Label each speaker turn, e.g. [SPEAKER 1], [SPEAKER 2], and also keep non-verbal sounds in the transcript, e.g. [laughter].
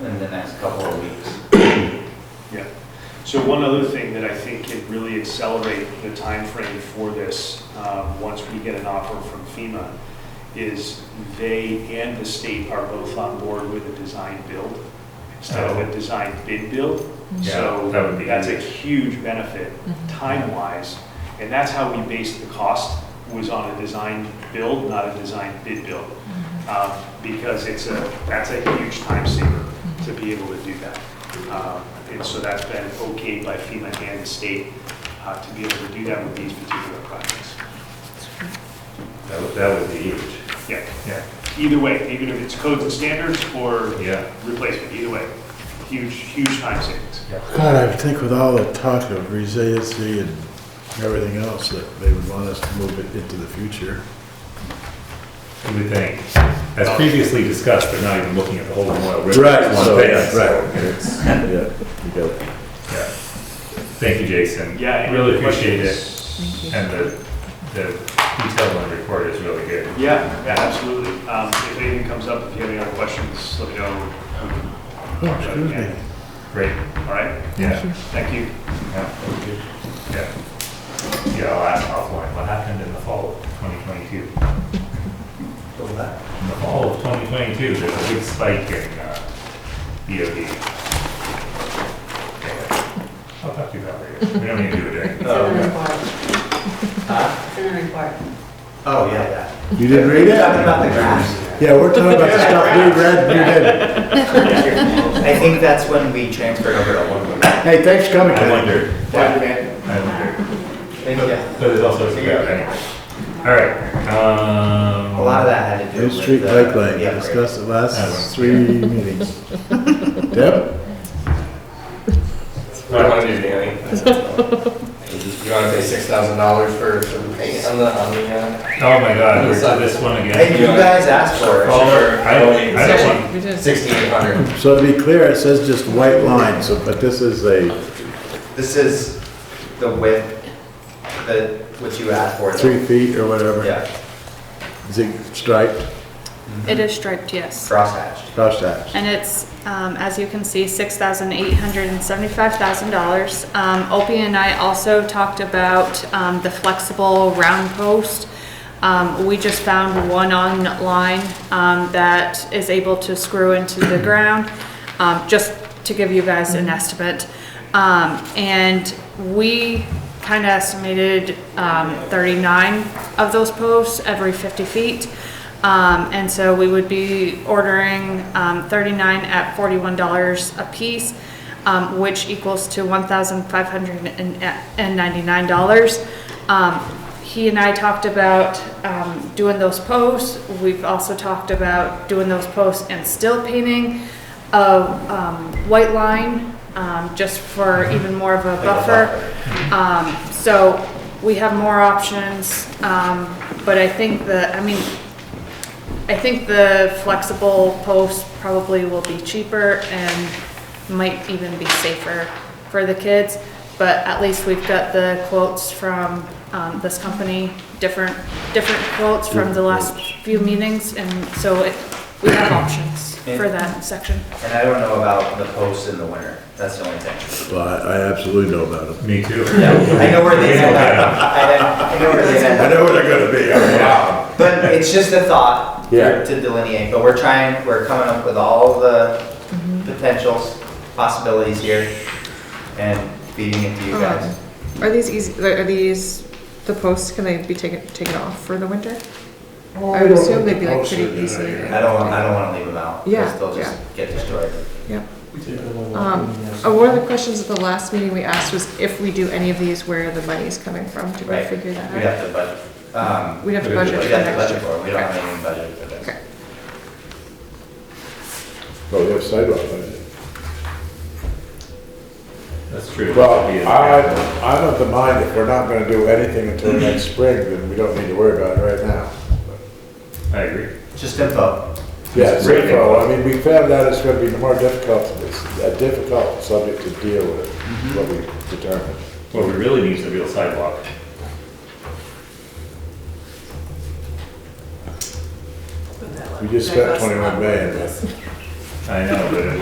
[SPEAKER 1] in the next couple of weeks.
[SPEAKER 2] So one other thing that I think can really accelerate the timeframe for this, um, once we get an offer from FEMA, is they and the state are both on board with a design build instead of a design bid build.
[SPEAKER 1] Yeah,
[SPEAKER 2] So
[SPEAKER 3] that would be
[SPEAKER 2] that's a huge benefit time-wise. And that's how we based the cost, was on a design build, not a design bid build. Um, Because it's a, that's a huge time saver to be able to do that. Um, And so that's been okayed by FEMA and the state uh, to be able to do that with these particular projects.
[SPEAKER 3] That would, that would be huge.
[SPEAKER 2] Yeah,
[SPEAKER 3] Yeah.
[SPEAKER 2] either way, even if it's codes and standards or
[SPEAKER 3] Yeah.
[SPEAKER 2] replacement, either way, huge, huge time savings.
[SPEAKER 4] God, I think with all the talk of resiliency and everything else, that they would want us to move it into the future.
[SPEAKER 3] What do you think? As previously discussed, but not even looking at the whole Memorial River. It's one
[SPEAKER 4] so-
[SPEAKER 3] thing, so it's-
[SPEAKER 4] Yeah, you got it.
[SPEAKER 3] yeah. Thank you, Jason.
[SPEAKER 2] Yeah. any
[SPEAKER 3] Really
[SPEAKER 2] other
[SPEAKER 3] appreciate it.
[SPEAKER 2] questions?
[SPEAKER 3] And the, the detail on the report is really good.
[SPEAKER 2] Yeah, yeah, absolutely. Um, If anything comes up, if you have any other questions, let me know.
[SPEAKER 4] Oh, excuse me.
[SPEAKER 3] Great.
[SPEAKER 2] All right,
[SPEAKER 3] Yeah.
[SPEAKER 2] thank you.
[SPEAKER 3] Yeah. Yeah. Yeah, I'll ask offline, what happened in the fall of 2022? In the fall of 2022, there's a big spike in uh, EOD. Anyway, I'll talk to you about it later. We don't need to do it during.
[SPEAKER 1] Oh,
[SPEAKER 5] It's in the
[SPEAKER 1] okay.
[SPEAKER 5] report.
[SPEAKER 1] Huh?
[SPEAKER 5] It's in the report.
[SPEAKER 1] Oh, yeah, yeah.
[SPEAKER 4] You didn't read
[SPEAKER 1] Talking
[SPEAKER 4] it?
[SPEAKER 1] about the graphs.
[SPEAKER 4] [laughs] Yeah, we're talking about the stuff we read, you didn't.
[SPEAKER 1] I think that's when we transferred over to one.
[SPEAKER 4] Hey, thanks for coming,
[SPEAKER 3] I
[SPEAKER 4] Ken.
[SPEAKER 3] wondered.
[SPEAKER 1] Thank
[SPEAKER 3] I
[SPEAKER 1] you.
[SPEAKER 3] wondered. But there's also, yeah, anyway. All right. um,
[SPEAKER 1] A lot of that had to do
[SPEAKER 4] Hill
[SPEAKER 1] with.
[SPEAKER 4] Street
[SPEAKER 1] the-
[SPEAKER 4] Bike Lane, we
[SPEAKER 1] the upgrade.
[SPEAKER 4] discussed it
[SPEAKER 3] That one.
[SPEAKER 4] last three meetings. Deb?
[SPEAKER 6] I don't want to do the You want to pay six thousand dollars for, for the paint on the, on the, uh?
[SPEAKER 3] Oh my God, we're to this one
[SPEAKER 1] Hey,
[SPEAKER 3] again.
[SPEAKER 1] you guys asked for it.
[SPEAKER 3] Caller, I don't, I don't want.
[SPEAKER 6] Sixty-eight hundred.
[SPEAKER 4] So to be clear, it says just white line, so, but this is a
[SPEAKER 1] This is the width that, what you asked for. though.
[SPEAKER 4] three feet or whatever.
[SPEAKER 1] Yeah,
[SPEAKER 4] Zig striped,
[SPEAKER 7] It is striped, yes.
[SPEAKER 1] crosshatched.
[SPEAKER 4] cross hatch.
[SPEAKER 7] And it's, um, as you can see, six thousand eight hundred and seventy-five thousand dollars. Um, Opie and I also talked about, um, the flexible round post. Um, we just found one online, um, that is able to screw into the ground, um, just to give you guys an estimate. Um, and we kind of estimated, um, thirty-nine of those posts every fifty feet. Um, and so we would be ordering, um, thirty-nine at forty-one dollars a piece, um, which equals to one thousand five hundred and ninety-nine dollars. Um, he and I talked about, um, doing those posts. We've also talked about doing those posts and still painting of, um, white line, um, just for even more of a
[SPEAKER 1] a
[SPEAKER 7] buffer. Um, so we have more options, um, but I think the, I mean, I think the flexible post probably will be cheaper and might even be safer for the kids. But at least we've got the quotes from, um, this company, different, different quotes from the last few meetings. And so it, we have options for that section.
[SPEAKER 1] And I don't know about the posts in the winter. That's the only thing.
[SPEAKER 4] Well, I I absolutely know about it.
[SPEAKER 3] Me too.
[SPEAKER 1] I know where they end up. I don't- I know where they end
[SPEAKER 4] I
[SPEAKER 1] up.
[SPEAKER 4] know where they're gonna be.
[SPEAKER 1] Wow. But it's just a thought
[SPEAKER 4] Yeah.
[SPEAKER 1] to delineate, but we're trying, we're coming up with all the
[SPEAKER 8] Mm-hmm.
[SPEAKER 1] potentials, possibilities here, and feeding it to you guys.
[SPEAKER 8] Are these easy, are these, the posts, can they be taken, taken off for the winter? I would assume they'd be like pretty easily.
[SPEAKER 1] uh, I don't, I don't wanna leave them out,
[SPEAKER 8] Yeah,
[SPEAKER 1] because they'll just get destroyed.
[SPEAKER 8] Yep. Um, uh, one of the questions at the last meeting we asked was if we do any of these, where the money's coming from, did we
[SPEAKER 1] Right.
[SPEAKER 8] figure that
[SPEAKER 1] We'd
[SPEAKER 8] out?
[SPEAKER 1] have to budget, um,
[SPEAKER 8] We'd have to
[SPEAKER 3] We'd have
[SPEAKER 8] budget
[SPEAKER 1] we'd
[SPEAKER 8] for
[SPEAKER 1] have to
[SPEAKER 8] next
[SPEAKER 1] budget
[SPEAKER 8] year.
[SPEAKER 1] for it, we don't have any budget for this.
[SPEAKER 8] Okay.
[SPEAKER 4] Oh, we have sidewalk, don't we?
[SPEAKER 3] That's true.
[SPEAKER 4] Well, I, I'm of the mind if we're not gonna do anything until next spring, then we don't need to worry about it right now.
[SPEAKER 3] I agree.
[SPEAKER 1] Just info,
[SPEAKER 4] Yeah, so,
[SPEAKER 3] Great info.
[SPEAKER 4] I mean, we found out it's gonna be more difficult, it's a difficult subject to deal with, what we determined.
[SPEAKER 3] What we really need is a real sidewalk.
[SPEAKER 4] We just spent 21 million.
[SPEAKER 3] I know, but it